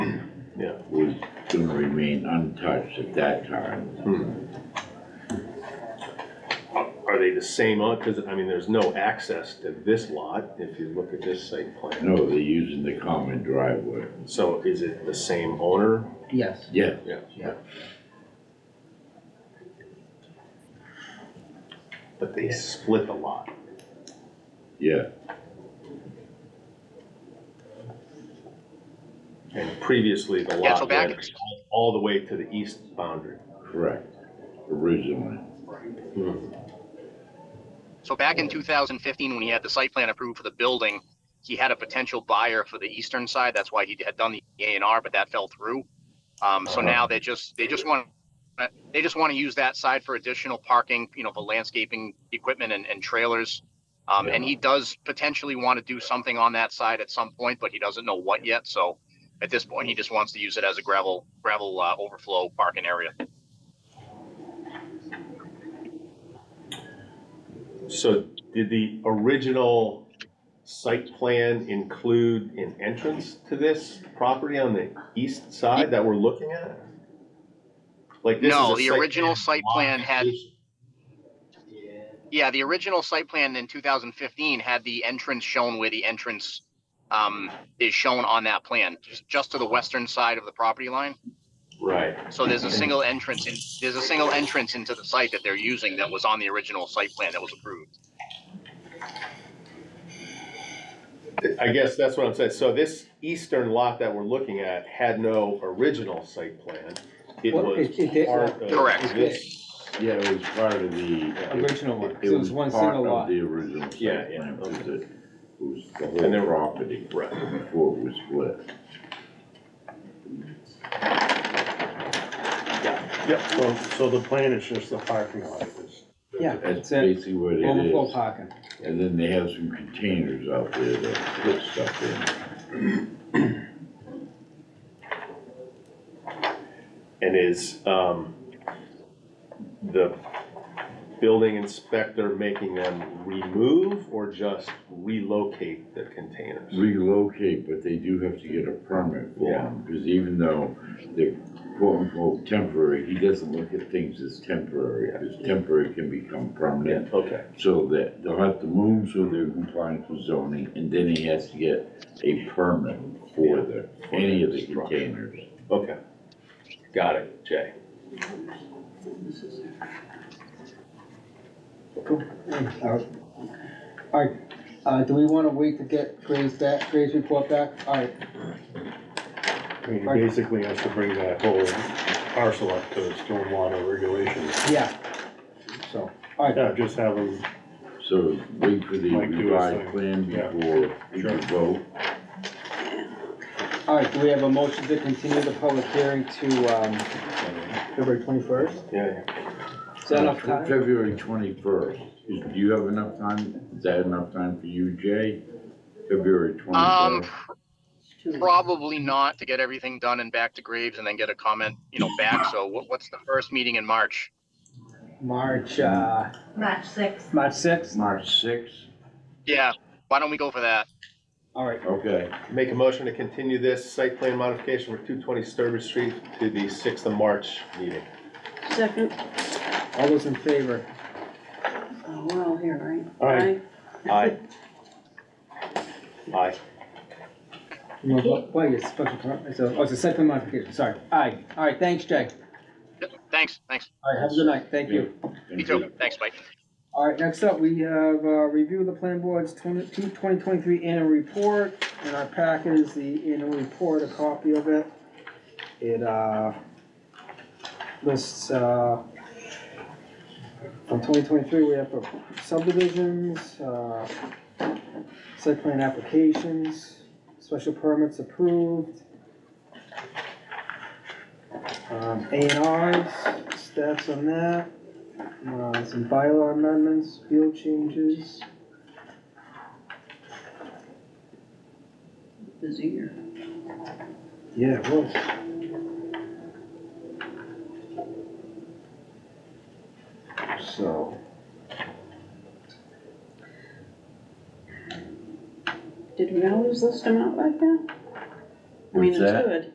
Yeah. was gonna remain untouched at that time. Hmm. Are they the same, because, I mean, there's no access to this lot if you look at this site plan. No, they're using the common driveway. So is it the same owner? Yes, Yeah, yeah. But they split the lot. yeah, And previously, the Yeah, so lot back- ran all the way to the east boundary. correct, originally. So back in 2015, when he had the site plan approved for the building, he had a potential buyer for the eastern side. That's why he had done the A and R, but that fell through. Um, so now they just, they just want, they just want to use that side for additional parking, you know, for landscaping equipment and, and trailers. Um, and he does potentially want to do something on that side at some point, but he doesn't know what yet. So at this point, he just wants to use it as a gravel, gravel, uh, overflow parking area. So did the original site plan include an entrance to this property on the east side that we're looking at? Like this is No, a the site original plan site lot plan had- application. Yeah, the original site plan in two thousand fifteen had the entrance shown where the entrance um is shown on that plan, just just to the western side of the property line. Right, So there's a single entrance in, there's a single entrance into the site that they're using that was on the original site plan that was approved. I guess that's what I'm saying, so this eastern lot that we're looking at had no original site plan. It Well, was it- it did- part of Correct. this. Yeah, it was part of the. Original one, It so it's one single Part of lot. the original Yeah, site yeah, plan, because okay. it was the And there- whole property Right, before it was split. Yep, so, so the plan is just the parking lot, it's, Yeah, That's it's an basically what it overflow is. parking. And then they have some containers out there that put stuff in. and is, um, the building inspector making them remove or just relocate the containers? relocate, but they do have to get a permit for Yeah. them, because even though they're quote unquote temporary, he doesn't look at things as temporary, because temporary can become Yeah, permanent. okay, So that they'll have to move so they're compliant with zoning, and then he has to get a permit for the, any of the containers. okay. Got it, Jay. All right, uh, do we wanna wait to get Gray's back, Gray's report back? All right, I mean, he basically has to bring that whole parcel up to stormwater regulations. yeah. So, all right, Yeah, just have him, So wait for the Mike, do his revised thing. plan Yeah. before we Sure. can vote. all right, do we have a motion to continue the public hearing to, um, February twenty-first? Yeah, yeah. Is that enough time? February twenty-first, do you have enough time, is that enough time for you, Jay? February Um, twenty-first? probably not to get everything done and back to Graves and then get a comment, you know, back. So what, what's the first meeting in March? March, uh, March sixth. March sixth? March sixth, Yeah, why don't we go for that? All right, okay. Make a motion to continue this site plan modification for two twenty Sturbridge Street to the sixth of March meeting. Second, all those in favor? oh, we're all here, right? Aye. Aye. Aye. You wanna vote? Well, it's special permit, it's a, oh, it's a second modification, sorry. Aye, all right, thanks, Jay. Yep, Thanks, thanks. All right, have a good night, thank you. Me too. Thanks, Mike. All right, next up, we have, uh, review of the plan board's 20 2023 annual report. In our packet is the annual report, a copy of it. It, uh, lists, uh, from twenty twenty-three, we have subdivisions, uh, site plan applications, special permits approved. Um, A and Rs, stats on that. Uh, some bylaw amendments, field changes. Busy here. Yeah, it was. So, Did we always list them out like that? I mean, What's it's that? good.